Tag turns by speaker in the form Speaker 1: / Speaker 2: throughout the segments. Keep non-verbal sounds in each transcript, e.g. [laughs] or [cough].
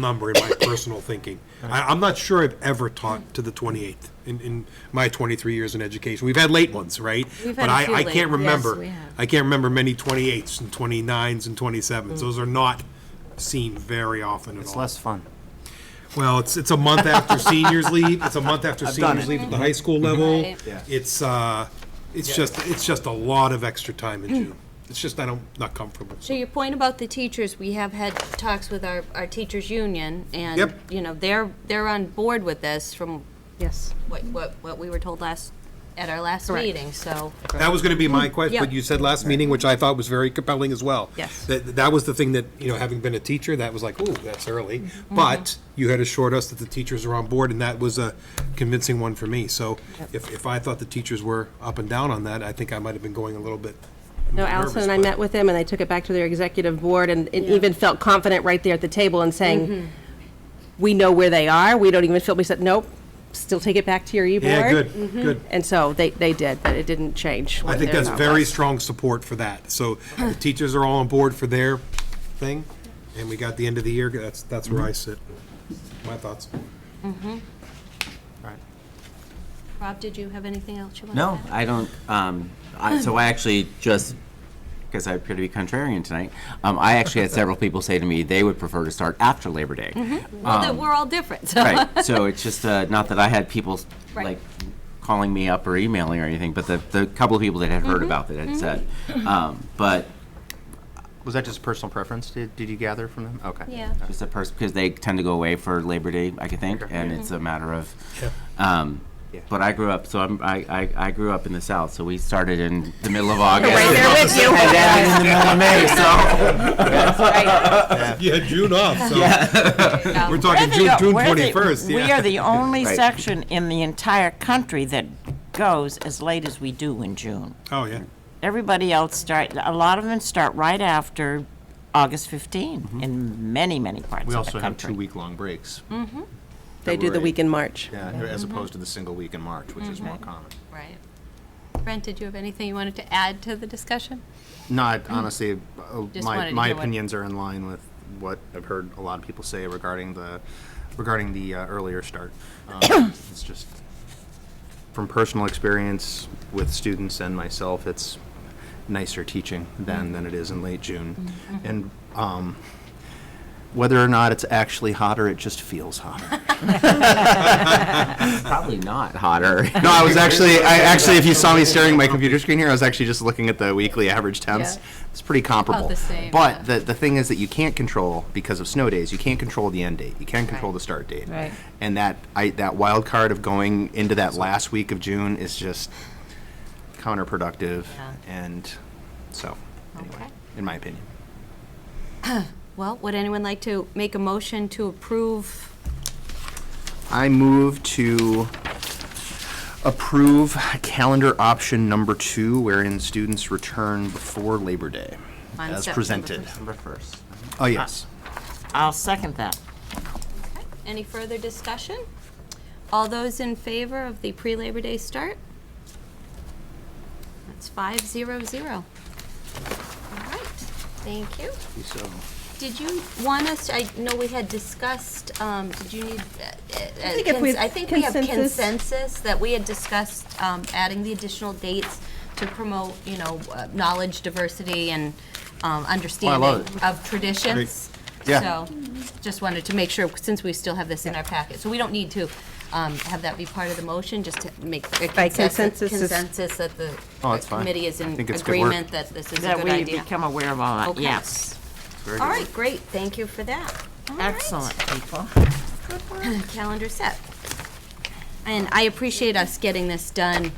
Speaker 1: number in my personal thinking. I, I'm not sure I've ever taught to the 28th in, in my 23 years in education. We've had late ones, right?
Speaker 2: We've
Speaker 1: But
Speaker 2: had a
Speaker 1: I,
Speaker 2: few
Speaker 1: I
Speaker 2: late-
Speaker 1: can't
Speaker 2: yes, we
Speaker 1: remember,
Speaker 2: have.
Speaker 1: I can't remember many 28s and 29s and
Speaker 2: Mm.
Speaker 1: 27s. Those are not seen very often at
Speaker 3: It's
Speaker 1: all.
Speaker 3: less fun.
Speaker 1: Well, it's, it's a month
Speaker 2: [laughs]
Speaker 1: after seniors leave, it's a month after
Speaker 3: done
Speaker 1: seniors
Speaker 3: it.
Speaker 1: leave at the high school level.
Speaker 2: Right.
Speaker 3: Yeah.
Speaker 1: It's, uh, it's just, it's just a lot of extra time
Speaker 2: [clears throat]
Speaker 1: in June. It's just, I don't, not comfortable.
Speaker 2: So your point about the teachers, we have had talks with our, our teachers' union, and,
Speaker 1: Yep.
Speaker 2: you know, they're, they're on board with this from
Speaker 4: Yes.
Speaker 2: what, what, what we were told last, at our last
Speaker 4: Correct.
Speaker 2: meeting, so.
Speaker 1: That was going to be
Speaker 4: Hmm.
Speaker 1: my question,
Speaker 2: Yeah.
Speaker 1: but you said last meeting, which I thought was very compelling as well.
Speaker 2: Yes.
Speaker 1: That, that was the thing that, you know, having been a teacher, that was like, ooh, that's early.
Speaker 4: Mm-hmm.
Speaker 1: But you had assured us that the teachers are on board, and that was a convincing one for me. So if, if I thought the teachers were up and down on that, I think I might have been going a little bit.
Speaker 4: No, Allison and I met with them, and they took it back to their executive board, and and even felt confident right there at the table and saying, we know where they are, we don't even feel, we said, nope, still take it back to your e-board.
Speaker 1: Yeah, good, good.
Speaker 4: And so they, they did, Mm-hmm. but it didn't change.
Speaker 1: I
Speaker 4: what
Speaker 1: think
Speaker 4: their
Speaker 1: that's
Speaker 4: thought
Speaker 1: very
Speaker 4: was.
Speaker 1: strong support for that. So
Speaker 4: [laughs]
Speaker 1: the teachers are all on board for their thing, and we got the end of the year, that's, that's where I
Speaker 4: Mm-hmm.
Speaker 1: sit. My thoughts.
Speaker 3: Right.
Speaker 2: Rob, did you have anything else you wanted to
Speaker 5: No,
Speaker 2: add?
Speaker 5: I don't. Um, I, so I actually just because I appear to be contrarian tonight. Um, I actually had several people say to me they would prefer to start after Labor Day.
Speaker 4: Mm-hmm.
Speaker 2: Well, that we're all different, so.
Speaker 5: um, Right. So it's just uh, not that I had people s-
Speaker 2: Right.
Speaker 5: like calling me up or emailing or anything, but the, the couple of people that had
Speaker 4: Mm-hmm.
Speaker 5: heard about it had said. Um, but
Speaker 3: Was that just personal preference? Did, did you gather from them? Okay.
Speaker 2: [laughs] Yeah.
Speaker 5: just a person because they tend to go away for Labor Day, I could think,
Speaker 3: Okay.
Speaker 5: and it's
Speaker 4: Mm-hmm.
Speaker 5: a matter of.
Speaker 1: Yeah.
Speaker 5: Um,
Speaker 3: Yeah.
Speaker 5: But I grew up, so I'm, I, I I grew up in the South, so we started in the middle of August.
Speaker 4: Right there
Speaker 5: [laughs]
Speaker 4: with you.
Speaker 5: And ended in the middle of May, so.
Speaker 1: Yeah, June off, so [laughs]
Speaker 2: Um,
Speaker 1: we're talking June, June
Speaker 6: We're the-
Speaker 1: 21st, yeah.
Speaker 6: We
Speaker 3: [laughs]
Speaker 6: are the only
Speaker 5: Right.
Speaker 6: section in the entire country that goes as late as we do in June.
Speaker 1: Oh, yeah.
Speaker 6: Everybody else start, a lot of them start right after August 15 in many, many parts
Speaker 3: Mm-hmm. We
Speaker 6: of
Speaker 3: also
Speaker 6: the
Speaker 3: have two
Speaker 6: country.
Speaker 3: week-long breaks,
Speaker 4: [laughs] They do the
Speaker 3: February.
Speaker 4: week in March.
Speaker 3: yeah, as
Speaker 2: Mm-hmm.
Speaker 3: opposed to the single week in March, which is more common.
Speaker 2: Right. Brent, did you have anything you wanted to add to the discussion?
Speaker 3: Not, honestly, uh,
Speaker 2: Mm-hmm. Just wanted to
Speaker 3: my,
Speaker 2: know
Speaker 3: my
Speaker 2: what-
Speaker 3: opinions are in line with what I've heard a lot of people say regarding the, regarding the uh, earlier start.
Speaker 2: [coughs]
Speaker 3: Um, It's just, from personal experience with students and myself, it's nicer teaching
Speaker 2: Mm-hmm.
Speaker 3: then than it is in late June. And um, whether or not it's actually hotter, it just feels
Speaker 2: [laughs]
Speaker 3: hotter.
Speaker 5: Probably
Speaker 2: [laughs]
Speaker 5: not hotter.
Speaker 3: No, I was actually, I actually, if you saw me staring at my computer screen here, I was actually just looking at the weekly average temps.
Speaker 2: Yeah.
Speaker 3: It's pretty comparable.
Speaker 2: About the same,
Speaker 3: But
Speaker 2: yeah.
Speaker 3: the, the thing is that you can't control, because of snow days, you can't control the end date. You can't control the start date.
Speaker 2: Right.
Speaker 3: And that, I, that wild card of going into that last week of June is just counterproductive.
Speaker 2: Yeah.
Speaker 3: And so,
Speaker 2: Okay.
Speaker 3: anyway, in my opinion.
Speaker 2: Well, would anyone like to make a motion to approve?
Speaker 3: I move to approve calendar option number two, wherein students return before Labor Day,
Speaker 2: On
Speaker 3: as
Speaker 2: September
Speaker 3: presented.
Speaker 5: September 1st.
Speaker 3: Oh, yes.
Speaker 6: I'll second that.
Speaker 2: Okay. Any further discussion? All those in favor of the pre-Labor Day start? That's five zero zero. All right, thank you.
Speaker 3: So,
Speaker 2: Did you want us, I know we had discussed, um, did you need, uh, uh,
Speaker 4: think if
Speaker 2: cons-
Speaker 4: we have
Speaker 2: I think we have
Speaker 4: consensus-
Speaker 2: consensus that we had discussed um, adding the additional dates to promote, you know, uh, knowledge, diversity, and um, understanding of traditions.
Speaker 3: Yeah.
Speaker 2: So, just wanted to make sure, since we still have this in our packet, so we don't need to um, have that be part of the motion, just to make a
Speaker 4: By
Speaker 2: consensus,
Speaker 4: consensus is-
Speaker 2: consensus that the
Speaker 3: Oh, that's fine.
Speaker 2: committee is
Speaker 3: I
Speaker 2: in
Speaker 3: think it's good work.
Speaker 2: agreement that this is a
Speaker 6: That
Speaker 2: good
Speaker 6: we
Speaker 2: idea.
Speaker 6: become aware of all that,
Speaker 2: Okay.
Speaker 6: yes.
Speaker 3: very
Speaker 2: All
Speaker 3: good.
Speaker 2: right, great, thank you for that. All right.
Speaker 6: Excellent, people.
Speaker 2: Calendar set. And I appreciate us getting this done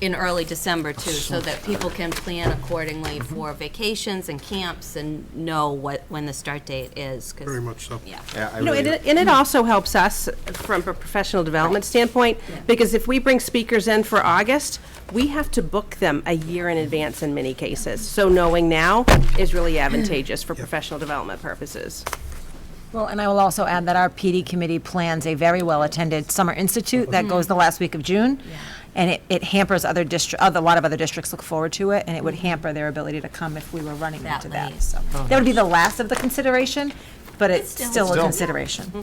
Speaker 2: in early December too, so that people can plan accordingly
Speaker 3: Mm-hmm.
Speaker 2: for vacations and camps and know what, when the start date is, 'cause-
Speaker 1: Very much so.
Speaker 2: Yeah.
Speaker 3: Yeah, I
Speaker 4: You know,
Speaker 3: really
Speaker 4: and it, and it also helps us from a professional development standpoint, because if we bring speakers in for August, we have to book them a year in advance in many cases. So knowing now is really advantageous for professional development purposes.
Speaker 7: Well, and I will also add that our PD committee plans a very well-attended summer institute that goes the last week of June. And it, it hampers other district, a lot of other districts look forward to it, and it would hamper their ability to come if we were running
Speaker 2: That
Speaker 7: into that.
Speaker 2: late.
Speaker 7: So That would be the last of the consideration, but it's
Speaker 2: still-
Speaker 7: still a
Speaker 3: Oh, Still.
Speaker 7: consideration.